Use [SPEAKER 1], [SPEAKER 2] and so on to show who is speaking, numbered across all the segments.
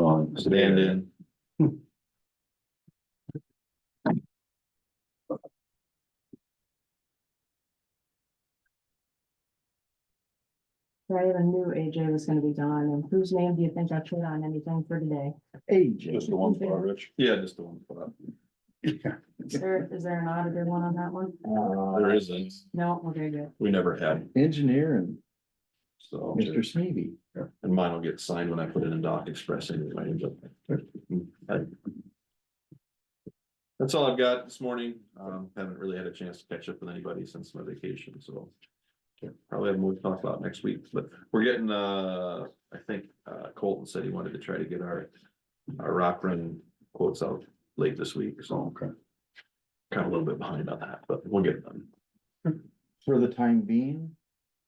[SPEAKER 1] It's abandoned.
[SPEAKER 2] I even knew AJ was gonna be gone, and whose name do you think I put on anything for today?
[SPEAKER 1] Just the one spot, Rich. Yeah, just the one spot.
[SPEAKER 2] Is there, is there an auditor one on that one?
[SPEAKER 1] Uh, There isn't.
[SPEAKER 2] No, okay, good.
[SPEAKER 1] We never had,
[SPEAKER 3] Uh, Engineer and
[SPEAKER 1] so.
[SPEAKER 3] Mr. Sneavy.
[SPEAKER 1] And mine will get signed when I put it in Doc Express anyway, but. I- That's all I've got this morning. Um, haven't really had a chance to catch up with anybody since my vacation, so. Probably have more to talk about next week, but we're getting, uh, I think, uh, Colton said he wanted to try to get our, our rock run quotes out late this week, so.
[SPEAKER 3] Okay.
[SPEAKER 1] Kind of a little bit behind on that, but we'll get it done.
[SPEAKER 3] For the time being,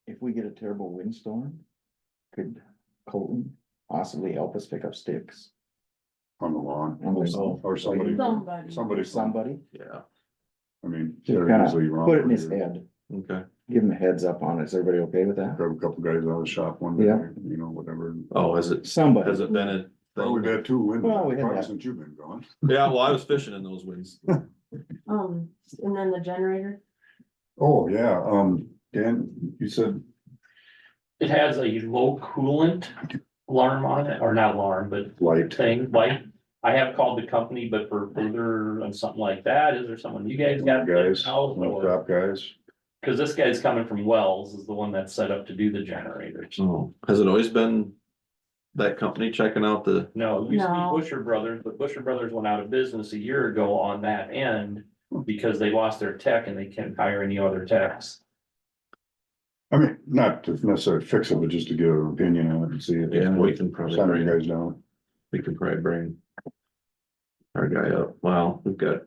[SPEAKER 3] if we get a terrible windstorm, could Colton possibly help us pick up sticks?
[SPEAKER 4] on the lawn,
[SPEAKER 3] On the lawn.
[SPEAKER 4] or somebody,
[SPEAKER 2] Somebody.
[SPEAKER 4] somebody,
[SPEAKER 3] Somebody,
[SPEAKER 1] Yeah,
[SPEAKER 4] I mean.
[SPEAKER 3] Just
[SPEAKER 4] they're
[SPEAKER 3] kinda
[SPEAKER 4] usually around
[SPEAKER 3] put it in
[SPEAKER 4] here.
[SPEAKER 3] his head,
[SPEAKER 1] okay.
[SPEAKER 3] give him a heads up on it. Is everybody okay with that?
[SPEAKER 4] Grab a couple guys out of the shop one day,
[SPEAKER 3] Yeah.
[SPEAKER 4] you know, whatever.
[SPEAKER 1] Oh, has it, has
[SPEAKER 3] Somebody,
[SPEAKER 1] it been a?
[SPEAKER 4] Well, we've had two
[SPEAKER 3] Well, we
[SPEAKER 4] windows,
[SPEAKER 3] had
[SPEAKER 4] probably
[SPEAKER 3] that.
[SPEAKER 4] since you've been gone.
[SPEAKER 1] Yeah, well, I was fishing in those winds.
[SPEAKER 2] Um, and then the generator,
[SPEAKER 4] Oh, yeah, um, Dan, you said,
[SPEAKER 5] It has a low coolant alarm on it, or not alarm, but
[SPEAKER 4] light,
[SPEAKER 5] thing, like, I have called the company, but for further on something like that, is there someone you guys got?
[SPEAKER 4] guys,
[SPEAKER 5] out?
[SPEAKER 4] no crap guys.
[SPEAKER 5] Cause this guy's coming from Wells, is the one that's set up to do the generators.
[SPEAKER 1] Oh, has it always been that company checking out the,
[SPEAKER 5] No, it used to be
[SPEAKER 2] No.
[SPEAKER 5] Busher Brothers, but Busher Brothers went out of business a year ago on that end. Because they lost their tech and they can't hire any other techs.
[SPEAKER 4] I mean, not to necessarily fix it, but just to get an opinion on it and see.
[SPEAKER 1] yeah, we can probably
[SPEAKER 4] Send you
[SPEAKER 1] bring,
[SPEAKER 4] guys down.
[SPEAKER 1] we can probably bring. Our guy up, wow, we've got.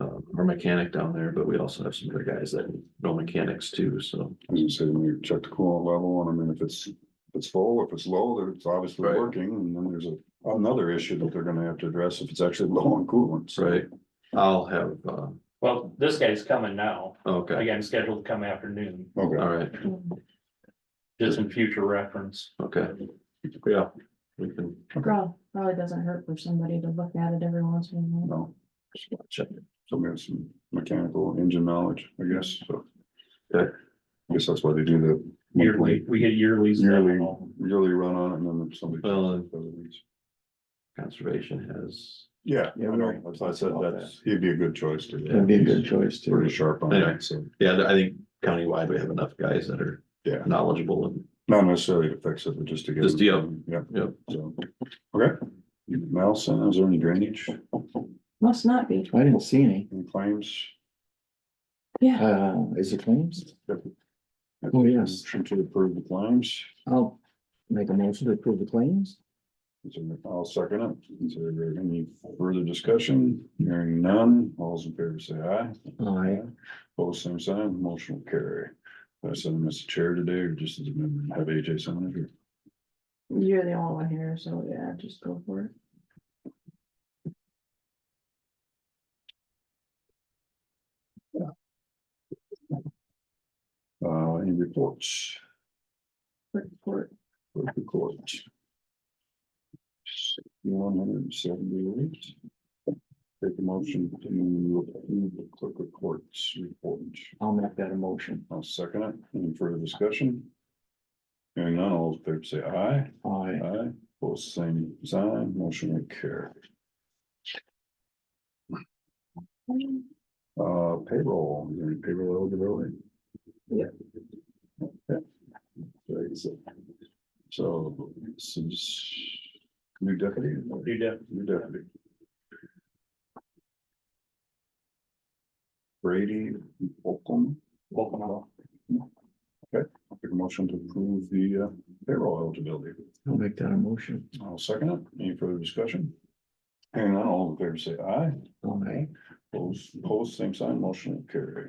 [SPEAKER 1] Um, our mechanic down there, but we also have some other guys that know mechanics too, so.
[SPEAKER 4] As you say, when you check the coolant level, and I mean, if it's, if it's full, if it's low, then it's obviously
[SPEAKER 1] Right.
[SPEAKER 4] working, and then there's a, another issue that they're gonna have to address if it's actually low on coolant. so.
[SPEAKER 1] Right, I'll have, uh,
[SPEAKER 5] Well, this guy's coming now,
[SPEAKER 1] okay,
[SPEAKER 5] again, scheduled to come afternoon,
[SPEAKER 4] Okay,
[SPEAKER 1] all right,
[SPEAKER 5] just in future reference.
[SPEAKER 1] okay, yeah, we can
[SPEAKER 2] Prob- probably doesn't hurt for somebody to look at it every once in a while.
[SPEAKER 4] no,
[SPEAKER 1] check.
[SPEAKER 4] so we have some mechanical engine knowledge, I guess, so.
[SPEAKER 1] Yeah.
[SPEAKER 4] I guess that's why they do the.
[SPEAKER 5] Yearly,
[SPEAKER 4] monthly-
[SPEAKER 5] we get yearly.
[SPEAKER 4] Yearly, yearly run on it, and then somebody.
[SPEAKER 1] Well, and conservation has,
[SPEAKER 4] Yeah, I
[SPEAKER 3] Yeah, we already
[SPEAKER 4] know, that's why I said
[SPEAKER 3] talked about
[SPEAKER 4] that's, he'd be a good choice to.
[SPEAKER 3] that'd be a good choice
[SPEAKER 4] Pretty
[SPEAKER 3] too.
[SPEAKER 4] sharp on
[SPEAKER 1] Anyway.
[SPEAKER 4] that, so,
[SPEAKER 1] yeah, I think countywide, we have enough guys that are
[SPEAKER 4] yeah,
[SPEAKER 1] knowledgeable and
[SPEAKER 4] not necessarily to fix it, but just to get.
[SPEAKER 1] Just, yeah.
[SPEAKER 4] Yeah.
[SPEAKER 1] Yeah.
[SPEAKER 4] So, okay. Nelson, is there any drainage,
[SPEAKER 2] Must not be,
[SPEAKER 3] I didn't see any.
[SPEAKER 4] any claims?
[SPEAKER 2] yeah.
[SPEAKER 3] Uh, is it claims? Oh, yes.
[SPEAKER 4] Motion To approve the claims,
[SPEAKER 3] I'll make a motion to approve the claims.
[SPEAKER 4] Is there- I'll second it, is there any further discussion, hearing none, all's in favor say aye.
[SPEAKER 3] I,
[SPEAKER 4] Both same sign, motion will carry. I said, Mr. Chair today, or just as a member, have AJ sign it, or
[SPEAKER 2] You're the only one here, so yeah, just go for it.
[SPEAKER 4] Uh, any reports
[SPEAKER 2] Quick report.
[SPEAKER 4] for the court? One hundred and seventy-eight. Take a motion to approve the clerk of courts report.
[SPEAKER 3] I'll make that a motion.
[SPEAKER 4] I'll second it. Any further discussion? Hearing none, all those in favor say aye.
[SPEAKER 3] I,
[SPEAKER 4] Aye. Both same sign, motion will carry. Uh, payroll, is there any payroll eligibility?
[SPEAKER 2] Yeah.
[SPEAKER 4] Okay. Very good. So, this is new deputy,
[SPEAKER 5] You do.
[SPEAKER 4] new deputy. Brady, Oakham,
[SPEAKER 5] Welcome on.
[SPEAKER 4] make a motion to approve the uh, payroll eligibility.
[SPEAKER 3] I'll make that a motion.
[SPEAKER 4] I'll second it. Any further discussion? Hearing none, all in favor say aye.
[SPEAKER 3] I,
[SPEAKER 4] Those opposed, same sign, motion will carry.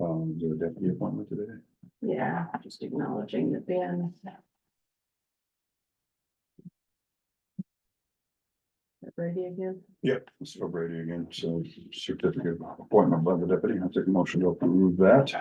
[SPEAKER 4] Um, is there a deputy appointment today?
[SPEAKER 2] Yeah, just acknowledging that Ben. Brady again,
[SPEAKER 4] Yep. It's for Brady again, so certificate of appointment by the deputy. I'll take a motion to approve that.